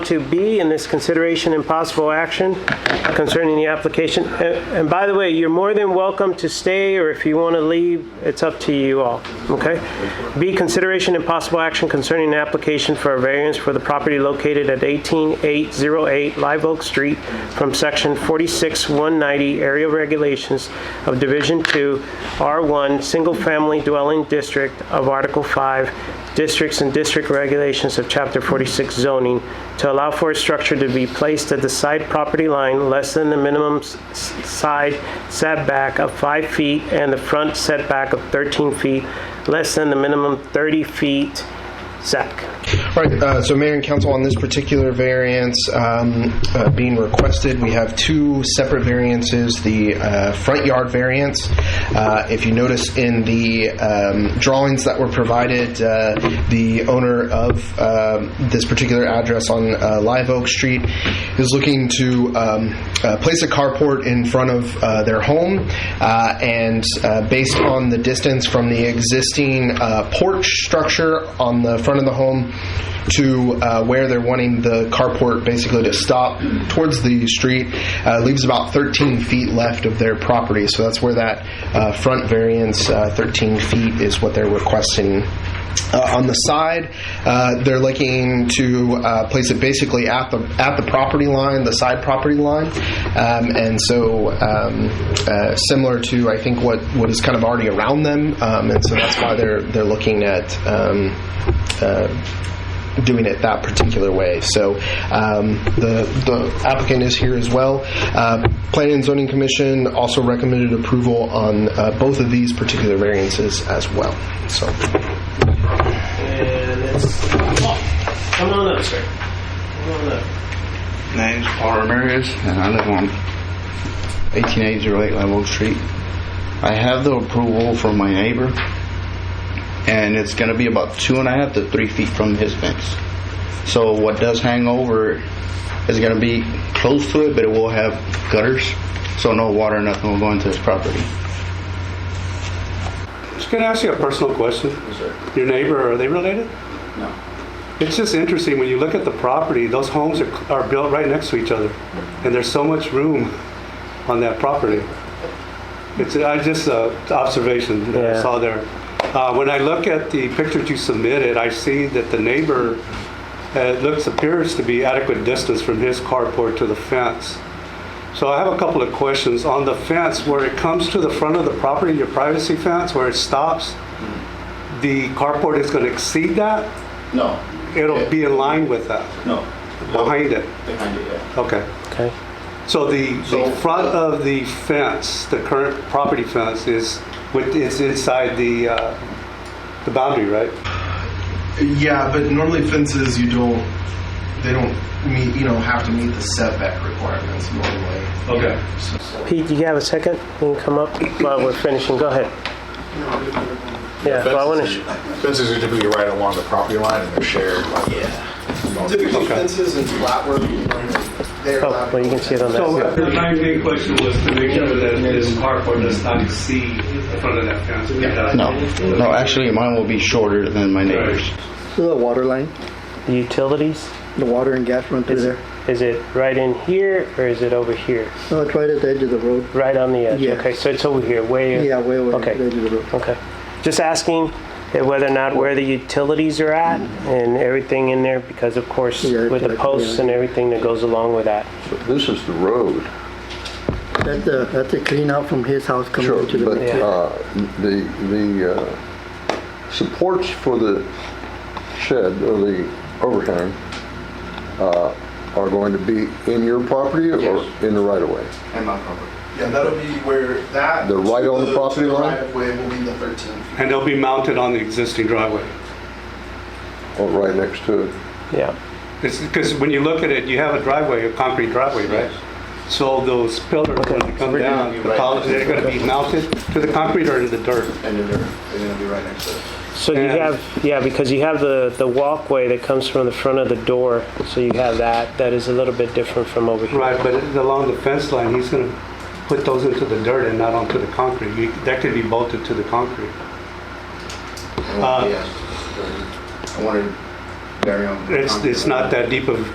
2B in this consideration and possible action concerning the application. And and by the way, you're more than welcome to stay, or if you want to leave, it's up to you all, okay? B, consideration and possible action concerning the application for a variance for the property located at 18808 Live Oak Street from Section 46190 Area Regulations of Division 2, R1, Single Family Dwelling District of Article 5, districts and district regulations of Chapter 46 zoning to allow for a structure to be placed at the side property line less than the minimum s- s- side setback of 5 feet and the front setback of 13 feet, less than the minimum 30 feet setback. All right, uh, so Mayor and Council, on this particular variance um, uh, being requested, we have two separate variances, the uh, front yard variance. uh, If you notice in the um, drawings that were provided, uh, the owner of um, this particular address on uh, Live Oak Street is looking to um, uh, place a carport in front of uh, their home, uh, and uh, based on the distance from the existing uh, porch structure on the front of the home to uh, where they're wanting the carport basically to stop towards the street uh, leaves about 13 feet left of their property. So that's where that uh, front variance, uh, 13 feet, is what they're requesting. Uh, on the side, uh, they're looking to uh, place it basically at the at the property line, the side property line, um, and so um, uh, similar to I think what, what is kind of already around them, um, and so that's why they're they're looking at um, uh, doing it that particular way. So um, the the applicant is here as well. Uh, Planning and Zoning Commission also recommended approval on uh, both of these particular variances as well. So. And it's, Uh, Oh, come on up, sir. Come on up. name's Paul Ramirez, and I live on 18808 Level Street. I have the approval from my neighbor, and it's going to be about two and a half to three feet from his fence. So what does hang over is going to be close to it, but it will have gutters, so no water, nothing will go into his property. Just gonna ask you a personal question. Your neighbor, are they related? No. It's just interesting, when you look at the property, those homes are, are built right next to each other, and there's so much room on that property. It's, I just, uh, observation that Yeah. I saw there. Uh, when I look at the pictures you submitted, I see that the neighbor, uh, looks, appears to be adequate distance from his carport to the fence. So I have a couple of questions. On the fence, where it comes to the front of the property, your privacy fence, where it stops, the carport is going to exceed that? No. It'll be in line with that, No. behind it? Behind it, yeah. Okay. Okay. So the, So- uh, the front of the fence, the current property fence is with, is inside the, uh, the boundary, right? Yeah, but normally fences you don't they don't meet you know have to meet the setback requirements normally. Okay. Pete, do you have a second? You can come up while we're finishing. Go ahead. Yeah, well, I want to. Fences are typically right along the property line and they're shared. Typically Okay. fences and flat work they're Oh, well, you can see it on that. So uh, My main question was to make sure that this carport does not exceed the front of that fence. No, no, actually, mine will be shorter than my neighbor's. The water line, The utilities, the water and gas run through there. is it right in here or is it over here? No, it's right at the edge of the road. Right on the edge? Yeah. Okay, so it's over here, way... Yeah, way over at the edge Okay, of the road. okay. Just asking whether or not where the utilities are at and everything in there, because of course, Yeah, with the exactly, posts yeah. and everything that goes along with that. This is the road, That's a, that's a clean out from his house coming sure, into the. but road. uh, the, the uh, supports for the shed or the overhang uh, are going to be in your property or Yes. in the right-of-way? And my property. Yeah, that'll be where that The right to on the property to the line? right of way will be the 13 feet. And they'll be mounted on the existing driveway. Or right next to it? Yeah. Because when you look at it, you have a driveway, a concrete driveway, right? So those pillars, when they come down, the columns, they're going to be mounted to the concrete or to the dirt? And they're, they're going to be right next to it. So you And- have, yeah, because you have the, the walkway that comes from the front of the door, so you have that. That is a little bit different from over here. Right, but along the fence line, he's going to put those into the dirt and not onto the concrete. You- That could be bolted to the concrete. Uh, I wanted to bury 'em. It's, it's not that deep of